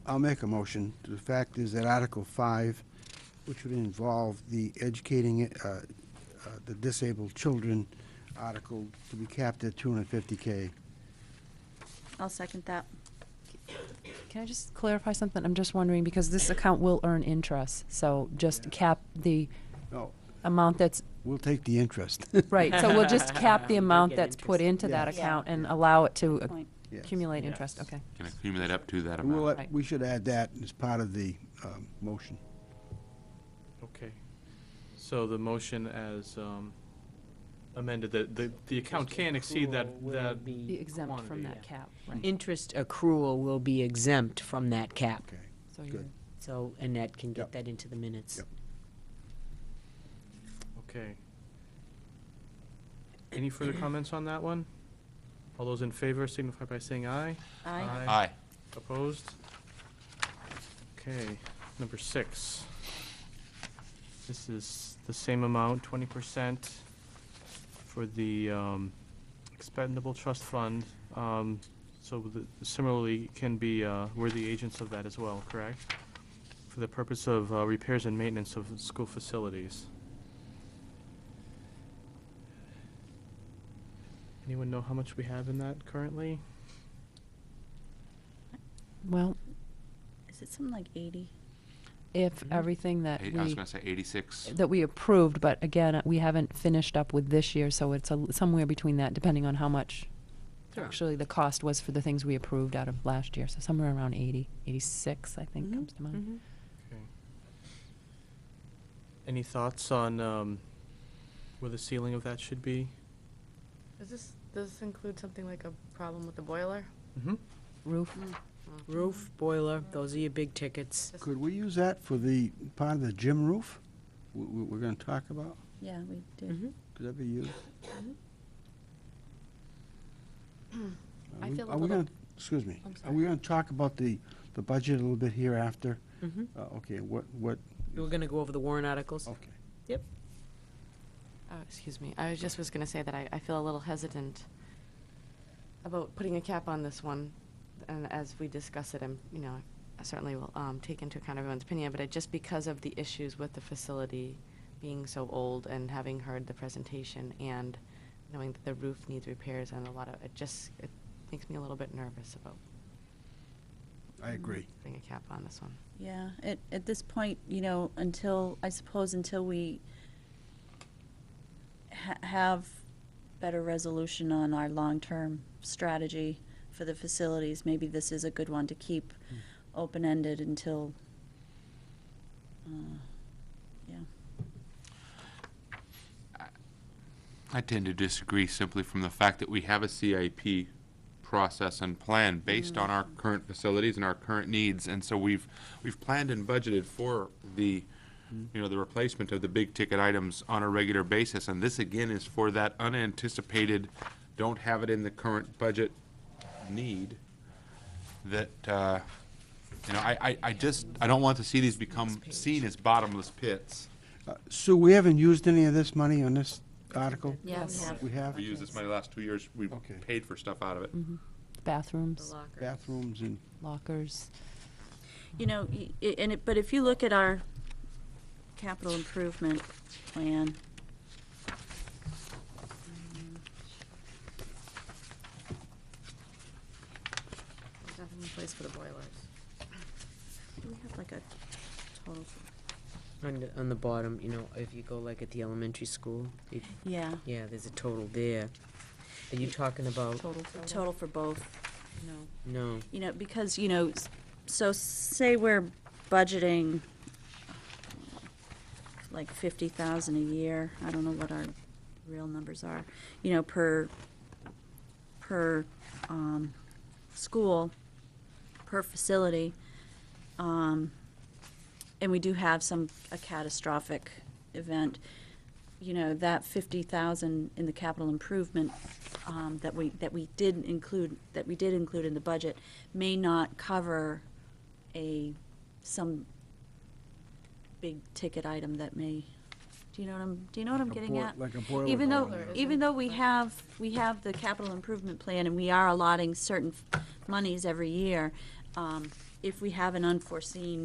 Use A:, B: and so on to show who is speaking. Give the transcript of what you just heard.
A: I'll make a motion. The fact is that Article 5, which would involve the educating uh, uh, the disabled children article, to be capped at 250K.
B: I'll second that.
C: Can I just clarify something? I'm just wondering, because this account will earn interest, so just cap the
A: No,
C: amount that's,
A: we'll take the interest.
C: right, so we'll just cap the amount
D: get
C: that's put into that
B: Yeah.
C: account and allow it to
B: Point.
A: Yes.
C: accumulate interest, okay.
E: Can accumulate up to that
A: And we'll
E: amount.
A: let- We should add that as part of the um, motion.
D: Okay. So the motion as um, amended, the, the, the account can exceed that,
F: Accrual will
D: that,
C: Be
F: be-
C: exempt from
D: quantity,
C: that
D: yeah.
C: cap, right.
F: Interest accrual will be exempt from that cap.
A: Okay.
C: So you-
A: Good.
F: So Annette can
A: Yep.
F: get that into the minutes.
A: Yep.
D: okay. Any further comments on that one? All those in favor signify by saying aye.
B: Aye.
E: Aye.
D: Opposed? Okay, number six. This is the same amount, twenty percent for the um, expendable trust fund. Um, So the- similarly, can be, uh, we're the agents of that as well, correct? For the purpose of uh, repairs and maintenance of school facilities. Anyone know how much we have in that currently?
C: Well,
B: Is it something like 80?
C: if everything that
E: Eight- I was
C: we,
E: gonna say eighty-six.
C: that we approved, but again, uh, we haven't finished up with this year, so it's a l- somewhere between that, depending on how much
F: Sure.
C: actually the cost was for the things we approved out of last year, so somewhere around 80, 86, I think,
F: Mhm,
C: comes to mind.
D: Okay. Any thoughts on um, where the ceiling of that should be?
G: Does this, does this include something like a problem with the boiler?
D: Mm-hmm.
C: Roof,
F: Roof, boiler, those are your big tickets.
A: Could we use that for the, part of the gym roof we- we- we're going to talk about?
B: Yeah, we did.
F: Mhm.
A: Could that be used?
C: I
B: Hmm.
A: Are we-
C: feel a
A: Are we
C: little-
A: going to, excuse me,
G: I'm
A: are we going to talk about the, the budget a little bit hereafter?
F: Mhm.
A: Uh, Okay, what, what,
F: We're gonna go over the warrant articles.
A: okay.
G: Oh, excuse me. I was just was gonna say that I, I feel a little hesitant about putting a cap on this one. And as we discuss it, I'm, you know, I certainly will, um, take into account everyone's opinion, but I, just because of the issues with the facility being so old and having heard the presentation and knowing that the roof needs repairs and a lot of, it just, it makes me a little bit nervous about
A: I agree.
G: putting a cap on this one.
B: Yeah, at, at this point, you know, until, I suppose until we ha- have better resolution on our long-term strategy for the facilities, maybe this is a good one to keep open-ended until, uh, yeah.
E: I tend to disagree simply from the fact that we have a CIP process and plan based on our current facilities and our current needs, and so we've, we've planned and budgeted for the, you know, the replacement of the big-ticket items on a regular basis, and this again is for that unanticipated, don't have it in the current budget need that, uh, you know, I, I, I just, I don't want to see these become seen as bottomless pits.
A: Uh, Sue, we haven't used any of this money on this article?
B: Yes.
A: We have
E: We used this money the last two years, we
A: Okay.
E: paid for stuff out of it.
C: bathrooms,
G: locker.
A: bathrooms and,
C: lockers.
B: You know, y- i- and it, but if you look at our capital improvement plan,
G: There's nothing in place for the boilers.
B: do we have like a total? for-
F: On the, on the bottom, you know, if you go like at the elementary school, it-
B: Yeah,
F: yeah, there's a total there. Are you talking about,
G: Total,
B: the
G: total,
B: total for both,
G: no.
F: no,
B: you know, because, you know, s- so say we're budgeting like fifty thousand a year, I don't know what our real numbers are, you know, per, per, um, school, per facility. Um, and we do have some, a catastrophic event, you know, that fifty thousand in the capital improvement, um, that we, that we did include, that we did include in the budget may not cover a, some big ticket item that may, do you know what I'm, do you know what I'm
A: A
B: getting
A: boi-
B: at?
A: like a boiler
B: Even though,
A: going
G: in.
B: even though we have, we have the capital improvement plan and we are allotting certain monies every year, um, if we have an unforeseen